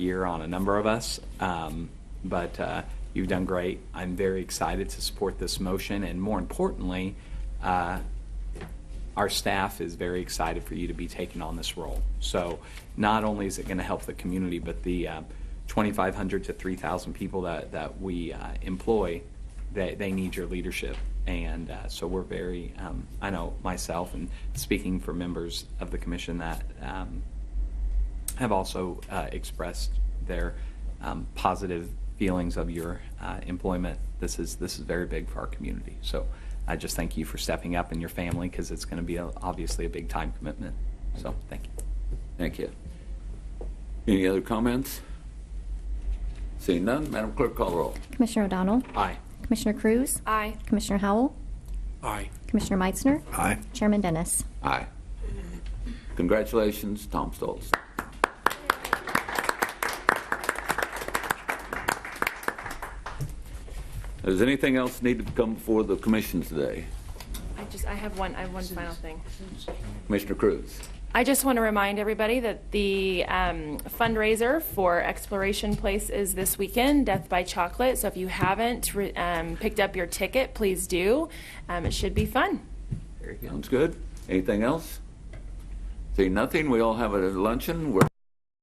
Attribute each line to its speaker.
Speaker 1: year on a number of us, um, but uh, you've done great. I'm very excited to support this motion, and more importantly, uh, our staff is very excited for you to be taking on this role. So not only is it going to help the community, but the uh, 2,500 to 3,000 people that, that we uh, employ, they, they need your leadership. And uh, so we're very, um, I know myself and speaking for members of the commission that um, have also uh, expressed their um, positive feelings of your uh, employment. This is this is very big for our community. So I just thank you for stepping up and your family because it's going to be a, obviously a big time commitment. So thank you.
Speaker 2: Thank you. Any other comments? Seeing none, Madam Clerk, call the roll.
Speaker 3: Commissioner O'Donnell.
Speaker 1: Aye.
Speaker 3: Commissioner Cruz.
Speaker 4: Aye.
Speaker 3: Commissioner Howell.
Speaker 5: Aye.
Speaker 3: Commissioner Meitzner. Aye. Chairman Dennis.
Speaker 2: Aye. Congratulations, Tom Stoltz. Does anything else need to come before the commission today?
Speaker 4: I just, I have one, I have one final thing.
Speaker 2: Commissioner Cruz?
Speaker 4: I just want to remind everybody that the um, fundraiser for Exploration Place is this weekend, Death by Chocolate. So if you haven't re- um, picked up your ticket, please do. Um, It should be fun.
Speaker 2: Sounds good. Anything else? Seeing nothing, we all have a luncheon. We're